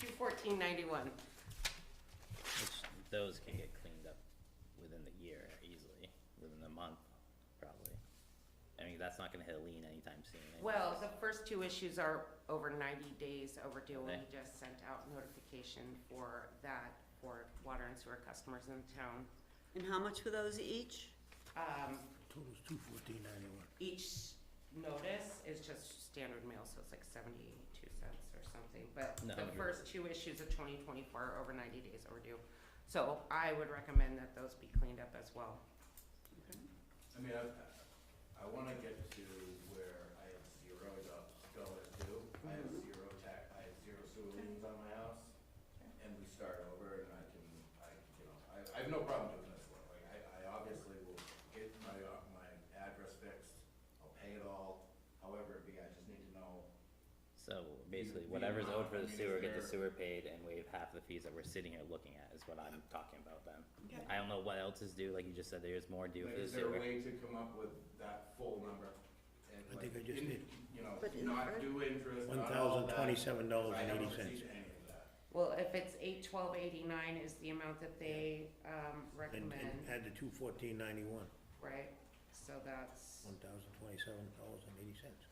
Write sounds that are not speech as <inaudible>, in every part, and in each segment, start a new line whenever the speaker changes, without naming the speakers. Two fourteen ninety-one.
Which those can get cleaned up within the year easily, within the month, probably. I mean, that's not gonna hit a lien anytime soon. anyways.
Well, the first two issues are over ninety days overdue, and we
Okay.
just sent out notification for that for water and sewer customers in town.
And how much were those each?
Um,
Total's two fourteen ninety-one.
each notice is just standard mail, so it's like seventy-two cents or something, but
No,
the
you're-
first two issues of twenty twenty-four are over ninety days overdue. So I would recommend that those be cleaned up as well.
I mean, I, I wanna get to where I have zero do- dollars due, I have
Mm-hmm.
zero tax, I have zero sewer liens on my house, and we start over, and I can, I, you know, I, I have no problem doing this one, like, I, I obviously will get my, uh, my address fixed, I'll pay it all, however it be, I just need to know,
So basically,
the
whatever's owed
amount,
for
I
the
mean,
sewer,
is
get the
there-
sewer paid and waive half the fees that we're sitting here looking at, is what I'm talking about then. I don't know what else is due, like you just said, there's more due
like,
for the
is there a
sewer.
way to come up with that full number? And
I
like,
think I just
in-
did.
You know,
But in
not
the-
due interest,
One
not all
thousand
that,
twenty-seven
because
dollars
I
and eighty
haven't
cents.
received any of that.
Well, if it's eight twelve eighty-nine is the amount that they, um,
And and
recommend,
add the two fourteen ninety-one,
right? So that's,
one thousand twenty-seven dollars and eighty cents.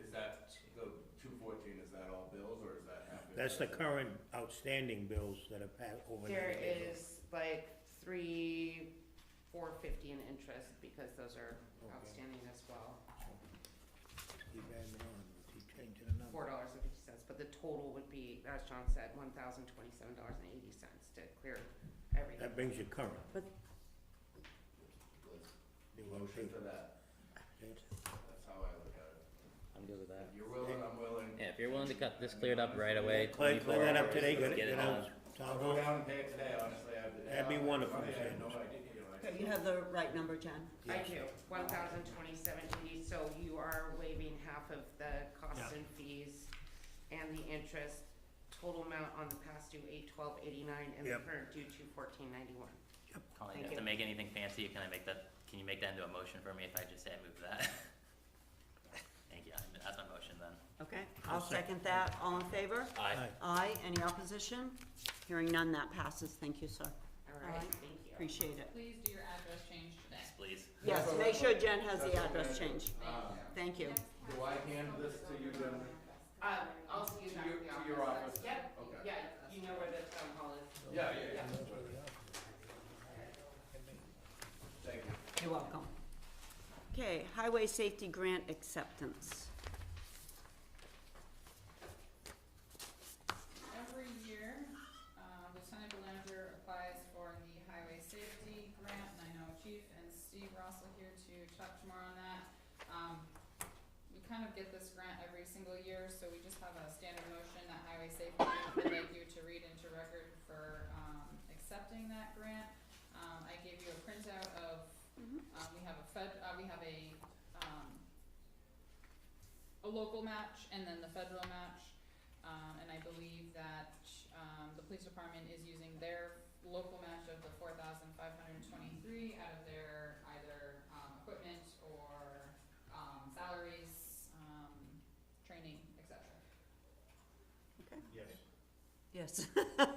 Is that, the two fourteen, is that all bills, or is that half?
That's the current outstanding bills that are pa- over ninety
there
days.
is like three, four fifty in interest, because those are
Okay.
outstanding as well.
Keep adding on, keep changing the number.
four dollars and fifty cents, but the total would be, as John said, one thousand twenty-seven dollars and eighty cents to clear everything.
That brings you current. They
Was
won't
motion
pay.
for that, that's how I look at it.
I'm good with that.
If you're willing, I'm willing.
Yeah, if you're willing to cut this cleared up right away,
Clean, clean
twenty-four
that up
hours,
today, get
let's
it,
get it
get
on.
out.
I'll
Town
go
hall.
down and pay it today, honestly, I have the. day
That'd be
off.
wonderful,
I had
Mr.
no
Anderson.
idea, you know, I-
Okay, you have the right number, Jen?
I do, one thousand twenty-seven eighty, so you are waiving half of the costs
Yeah.
and fees and the interest, total amount on the past due eight twelve eighty-nine and the
Yep.
current due two fourteen ninety-one.
Colleen,
Thank
if to
you.
make anything fancy, can I make that, can you make that into a motion for me if I just say I move <laughs> that? Thank you, I- that's my motion then.
Okay, I'll
second.
second that. All in favor?
Aye.
Aye. Any opposition? Hearing none, that passes. Thank you, sir.
All right,
Alright.
thank you.
Appreciate it.
Please do your address change today.
Yes, please.
Yes, make sure Jen has the
That's what
address
I-
changed.
Uh,
Thank you.
Do I hand this to you, Jen?
Um, I'll see you
To
back
your,
at the office.
to your office?
Yep,
Okay.
yeah, you know where the town hall is.
Yeah, yeah, yeah. Thank you.
You're welcome. Okay, highway safety grant acceptance.
Every year, uh, Lieutenant Belanger applies for the highway safety grant, and I know Chief and Steve were also here to talk tomorrow on that. Um, we kind of get this grant every single year, so we just have a standard motion that highway safety would like you to read into record for, um, accepting that grant. Um, I gave you a printout of, um, we have a fed, uh, we have a, um, a local match and then the federal match. Um, and I believe that, um, the police department is using their local match of the four thousand five hundred and twenty-three out of their either, um, equipment or, um, salaries, um, training, et cetera.
Yes.
Yes. <laughs>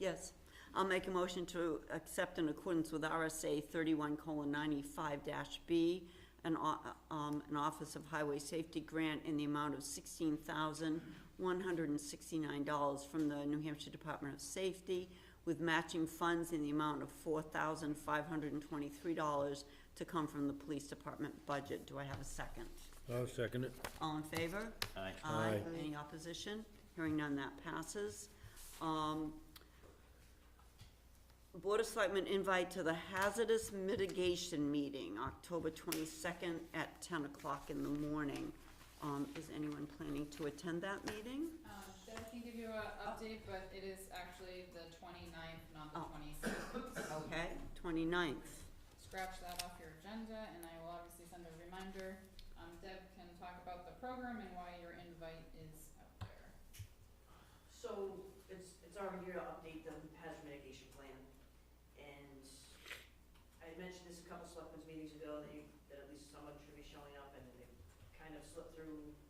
Yes. I'll make a motion to accept in accordance with RSA thirty-one colon ninety-five dash B, an, o- um, an Office of Highway Safety grant in the amount of sixteen thousand one hundred and sixty-nine dollars from the New Hampshire Department of Safety with matching funds in the amount of four thousand five hundred and twenty-three dollars to come from the police department budget. Do I have a second?
I'll second it.
All in favor?
Aye.
Aye.
Aye.
Any opposition? Hearing none, that passes. Um, Board of Selectmen invite to the hazardous mitigation meeting, October twenty-second at ten o'clock in the morning. Um, is anyone planning to attend that meeting?
Um, Deb can give you a update, but it is actually the twenty-ninth, not the
Oh.
twenty-sixth.
Okay, twenty-ninth.
scratch that off your agenda, and I will obviously send a reminder. Um, Deb can talk about the program and why your invite is out there.
So it's, it's our year to update the hazard mitigation plan. And I had mentioned this a couple selectmen's meetings ago, that you, that at least someone should be showing up, and it kind of slipped through Um,